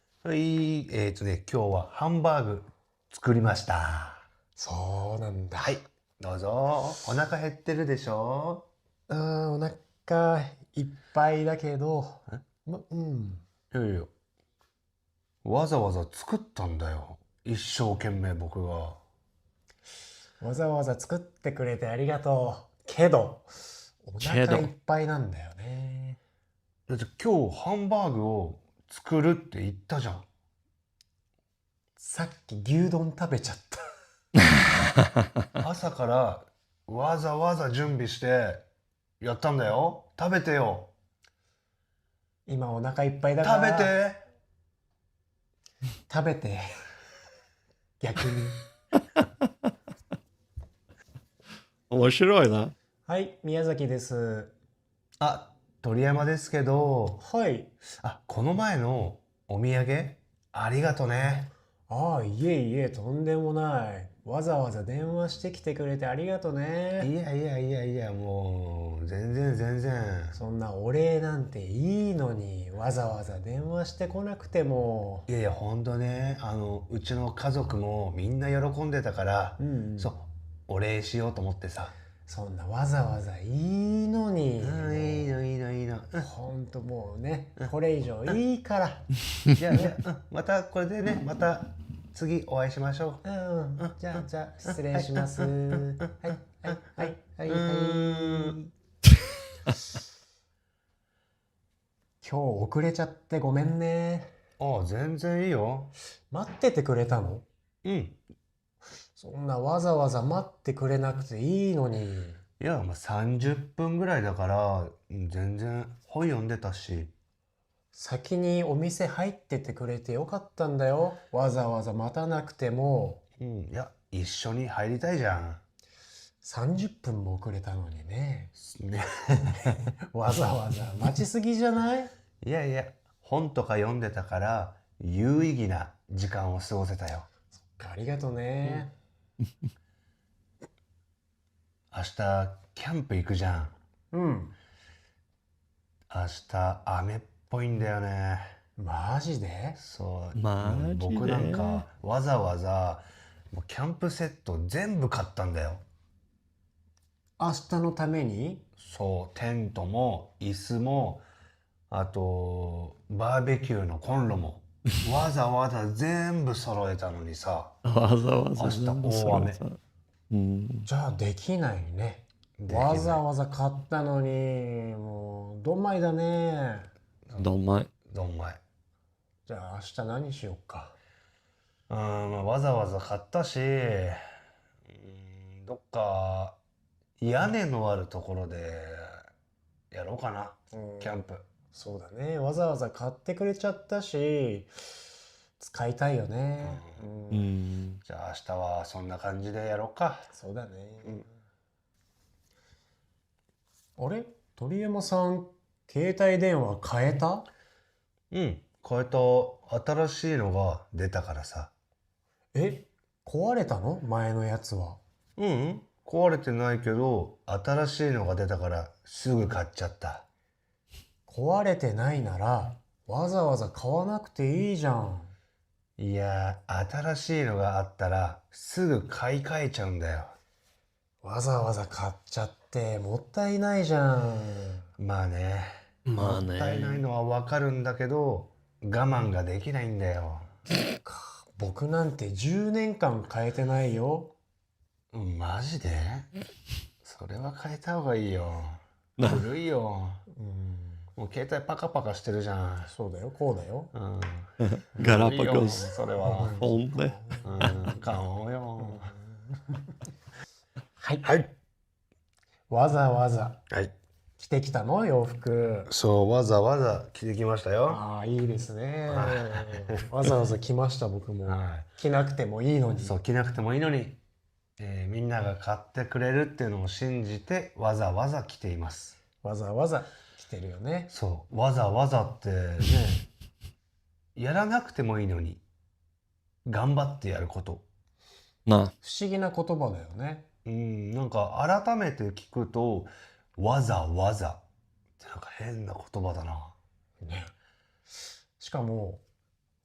はい、えっ、とね、今日はハンバーグ作りました。そうなんだ。はい、どうぞ。お腹減ってるでしょうーん、お腹いっぱいだけど、ま、うん。いやいや。わざわざ作ったんだよ。一生懸命僕が。わざわざ作ってくれてありがとう。けど、おけど腹いっぱいなんだよね。だって今日ハンバーグを作るって言ったじゃ ん。さっき牛丼食べちゃった。朝からわざわざ準備してやったんだよ。食べてよ。今お腹いっぱいだか食べら。て。食べて。逆に。面白いな。はい、宮崎です。あ、鳥山ですけど、はい。あ、この前のお土産ありがとね。ああ、いえいえ、とんでもない。わざわざ電話してきてくれてありがとね。いやいやいやいや、もう、全然全然。そんなお礼なんていいのに、わざわざ電話してこなくても。いやいや、ほんとね、あの、うちの家族もみんな喜んでたからう、ん、そう、お礼しようと思ってさ。そんなわざわざいいのに。うん、いいのいいのいいの。うんほんともうね、これ以上いいから。じゃあ、じゃあうんまたこれでね、また次お会いしましょうん、じゃあじゃあ失礼します。はい、はい、はい、はい、う。はい。ーん今日遅れちゃってごめんね。ああ、全然いいよ。待っててくれたのうん。そんなわざわざ待ってくれなくていいのに。いや、まあ、30分ぐらいだから、うん全然本読んでたし。先にお店入っててくれてよかったんだよ。わざわざ待たなくても。うん、いや、一緒に入りたいじゃん。 30分も遅れたのにね。ね、わざわざ待ちすぎじゃないいやいや、本とか読んでたから、有意義な時間を過ごせたよ。ありがとね。明日、キャンプ行くじゃん。うん。明日、雨っぽいんだよね。マジでそう。マジで僕なんか、わざわざ、もうキャンプセット全部買ったんだよ。明日のためにそう、テントも、椅子も、あと、バーベキューのコンロも、わざわざ全部揃えたのにさ、わざわざ。明日大雨うん。じゃあできないね。できないわざわざ買ったのに、もう、どんまいだね。どんまい。どんまい。じゃあ明日何しよっか。うん、まあ、わざわざ買ったし、うん、どっか、屋根のあるところで、やろうかな、うんキャンプ。そうだね。わざわざ買ってくれちゃったし、使いたいよね。ううんん。じゃあ、明日はそんな感じでやろうか。そうだね。あれ鳥山さん、携帯電話変えたうん、これと、新しいのが出たからさ。え壊れたの前のやつは。うん、壊れてないけど、新しいのが出たからすぐ買っちゃった。壊れてないなら、わざわざ買わなくていいじゃん。いやー、新しいのがあったらすぐ買い替えちゃうんだよ。わざわざ買っちゃって、もったいないじゃん。まあね。まあもったいないね。のはわかるんだけど、我慢ができないんだよ。僕なんて10年間変えてないよ。うんマジでそれは変えた方がいいよ。な古いよ。うん、もう携帯パカパカしてるじゃそうだよ、こうだよ。ん。うん。ガラ古いパよゴス。それは。ほんで。うん、買おうよ。はい。はい。わざわざはい。着てきたの洋服。そう、わざわざ着てきましたよ。ああ、いいですねは。わざわざ来ました、僕も。は着なくてもいいのい。に。そう、着なくてもいいのに、えーみんなが買ってくれるっていうのを信じて、わざわざ着ています。わざわざ着てるよね。そう、わざわざってね、やらなくてもいいのに、頑張ってやること。な不思議な言葉だよね。うん、なんか改めて聞くと、わざわざってなんか変な言葉だな。ねしかも、